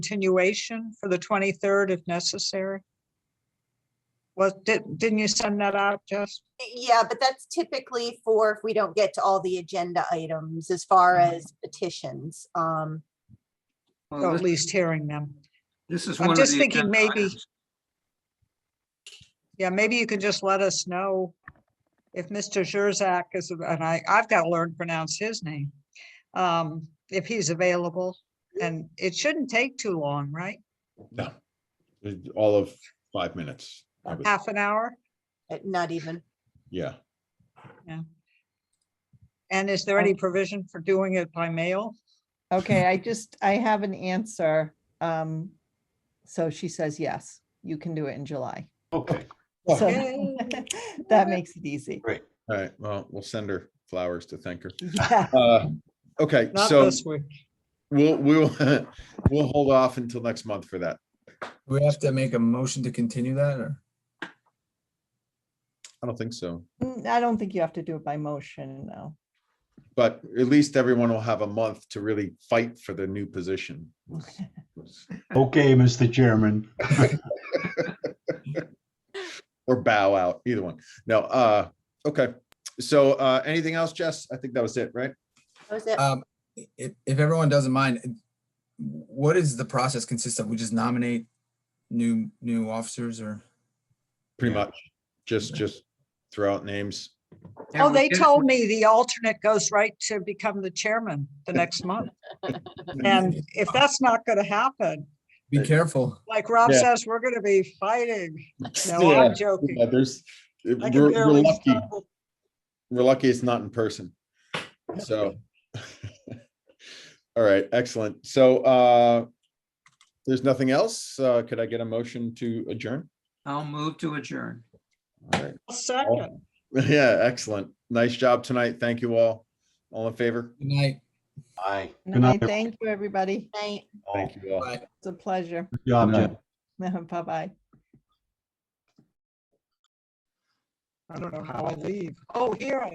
continuation for the 23rd if necessary? Was, did, didn't you send that out, Jess? Yeah, but that's typically for if we don't get to all the agenda items as far Mhm. as petitions. Um, Or Well, at Um, this- least hearing them? This is I'm one of the. just thinking agenda maybe- items. Yeah, maybe you can just let us know if Mr. Zurzak is, and I, I've got to learn to pronounce his name. um, If he's available, and it shouldn't take too long, right? No, It- all of five minutes. I would- Half an hour? uh, not even, Yeah, And is there any provision for doing it by mail? Okay, I just, I have an answer. Um, so she says, yes, you can do it in July. Okay, Oh. So Yay. that makes it easy. great. all right, well, we'll send her flowers to thank her. Yeah, Uh, Okay, Not so this week. we'll, we'll, we'll hold off until next month for that. Do We have to make a motion to continue that or? I don't think so, Mm, I don't think you have to do it by motion, no. but at least everyone will have a month to really fight for the new position. Okay, Mr. Chairman. Or bow out, either one. No, uh, okay. So, uh, anything else, Jess? I think that was it, right? That was it? Um, if, if everyone doesn't mind, what is the process consist of? We just nominate new, new officers or? Pretty Yeah. much, just, just throw out names. Yeah, Oh, we they did- told me the alternate goes right to become the chairman the next month. And if that's not going to happen, Be careful. like Rob Yeah. says, we're going to be fighting. No, Yeah, I'm joking. yeah, There's, uh, I we're can we're barely lucky. stumble. We're lucky it's not in person. So. All right, excellent. So uh there's nothing else. Uh Could I get a motion to adjourn? I'll move to adjourn. All right. A Second. Yeah, excellent. Nice job tonight. Thank you all. All in favor? Good night. Aye. Good And I night. thank you, everybody. Night. all. Thank you all. Bye. It's a pleasure. Good job, Good night. Jeff. Bye-bye. I don't know how I leave. Oh, here I